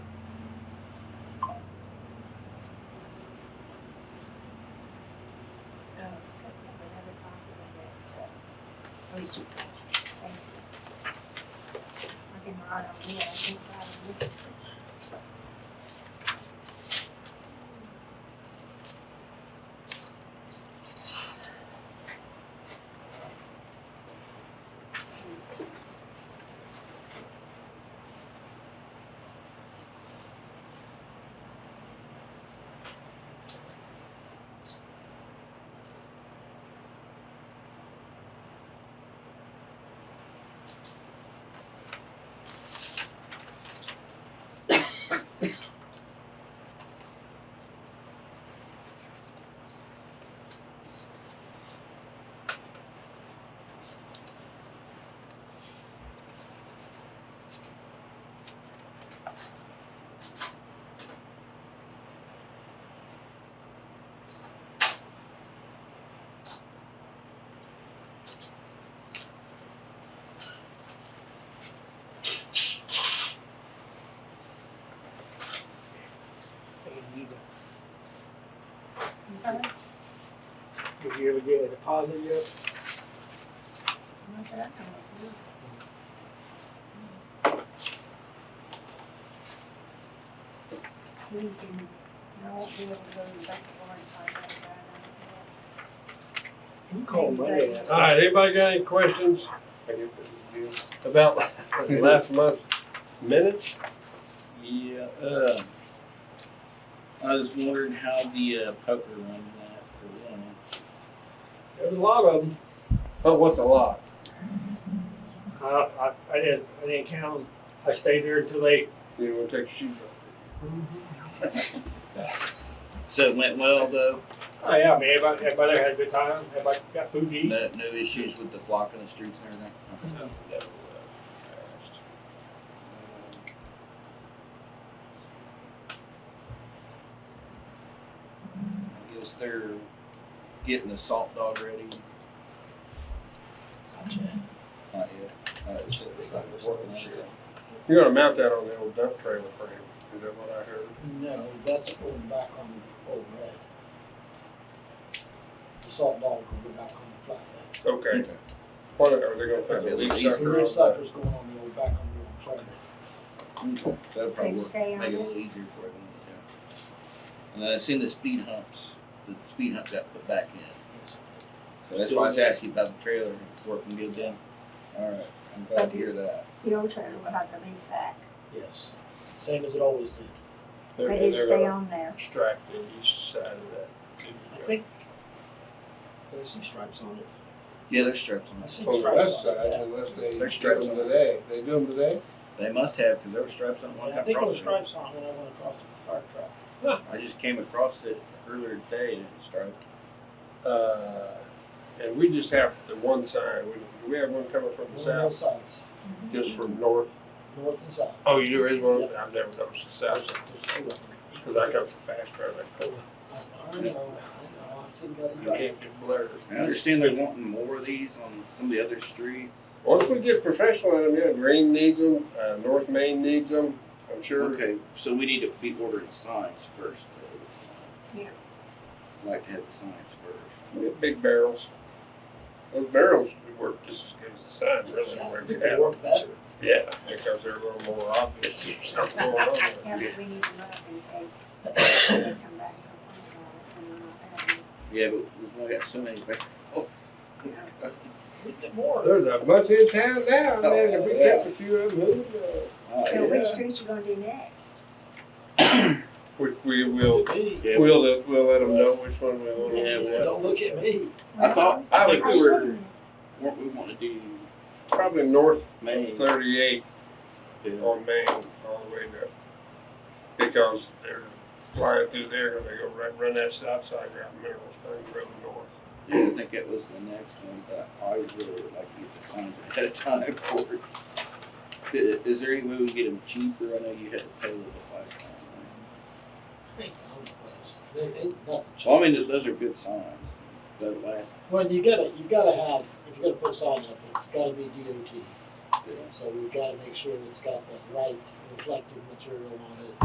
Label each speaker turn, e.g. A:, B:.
A: least we can. Thank you. Working hard on me, I think I mixed it.
B: They need to,
A: You saw that?
B: did you ever get a deposit yet?
A: Not that I know of, no. We can, I won't be able to go to the back door and find out about anything else.
B: You call Monday.
A: Thank you.
C: All right, anybody got any questions
D: I guess it was you.
C: about last month's minutes?
E: Yeah, uh, I was wondering how the uh, poker one went for one.
B: There's a lot of them.
C: Oh, what's a lot?
B: I, I, I didn't, I didn't count them. I stayed there until they.
C: You didn't want to take your shoes
E: So it went well though.
B: Oh yeah, I mean, everybody, everybody had a good time. Everybody got food to eat.
E: No, no issues with the blocking the streets and everything. Okay.
B: No.
E: That was fast. Um, I guess they're getting the salt dog ready. Not yet. Uh, it's, it's not working. is it?
C: off. You're gonna mount that on the old dump trailer frame, is that what I heard?
F: No, that's going back on the old red. The salt dog will go back on the flatbed.
C: Okay. What, are they gonna put
E: Probably
C: the
E: at
C: leaf
E: least
F: The
C: sucker
F: rear
C: on that?
F: sucker's going on the old, back on the old trailer.
E: Okay, that'll probably
A: They
E: work.
A: say on
E: make it a
A: it,
E: little easier for them. And then I seen the speed humps, the speed hump got put back in. So that's why I was asking about the trailer, It's working good then. Alright, I'm glad to hear that.
A: the old trailer will have the leaf back,
F: Yes, same as it always did.
C: They're-
A: they just
C: they're
A: stay
C: gonna
A: on there.
C: Extract the east side of that.
F: I think there's some stripes on it.
E: Yeah, they're stripes on
F: I
E: this.
F: seen
C: On the
F: stripes
C: west
F: on
C: side,
F: it.
C: unless they
E: They're
C: do them
E: strapped on.
C: today, they do them today?
E: They must have, cause there were stripes on
F: yeah.
E: one
F: I
E: kind
F: think there were
E: of cross.
F: stripes on it when I went across with the fire truck.
E: I just came across it earlier today and it was striped.
C: Uh, and we just have the one sign, we, do we have one coming from the
F: On both
C: south,
F: sides,
C: just from north.
F: north and south.
C: Oh, you do raise one, I've never noticed the south
F: There's,
C: side,
F: there's two of them.
C: cause I come so fast around that corner.
F: I know, I know, I've seen that.
C: You can't get blurred.
E: I understand they're wanting more of these on some of the other streets.
C: Once we get professional in them, yeah, Green needs them, uh, North Main needs them, I'm sure.
E: Okay, so we need to be ordering signs first though this time.
A: Yeah.
E: Like to have the signs first.
C: We have Big barrels. Those barrels would work just as good as the sign, really, where you
F: They
C: have,
F: work better.
C: yeah, because they're a little more obvious, there's something going on there.
A: Yeah, but we need to look in case they come back and complain about it,
E: Yeah, but we've only got so many barrels.
A: and we're not
F: We get more.
C: There's a bunch in town now, man, if we
E: Oh,
C: kept a few of them,
A: having
C: who, uh,
A: it.
E: Uh,
A: So
C: yeah.
A: which streets you gonna do next?
C: we, we will,
F: Look at me.
E: yeah,
C: we'll, let- we'll let them know which one we want to have.
F: Don't look at me.
E: I thought, I think
C: I
E: we were, weren't we wanting to do
C: Probably north
E: Main?
C: of thirty-eight
E: Yeah.
C: on Main, all the way to, because they're flying through there, and they go right, run that stop sign around Mineral Spring Road North.
E: Yeah, I think that was the next one, but I really would like to get the signs ahead of time for it. I- Is there any way we can get them cheaper? I know you had to pay a little bit last time. right?
F: Ain't found a place. There ain't nothing cheap.
E: Well, I mean, th- those are good signs, that last,
F: Well, you gotta, you gotta have, if you're gonna put a sign up, it's gotta be DOT.
E: yeah.
F: So we've gotta make sure it's got the right reflective material on it.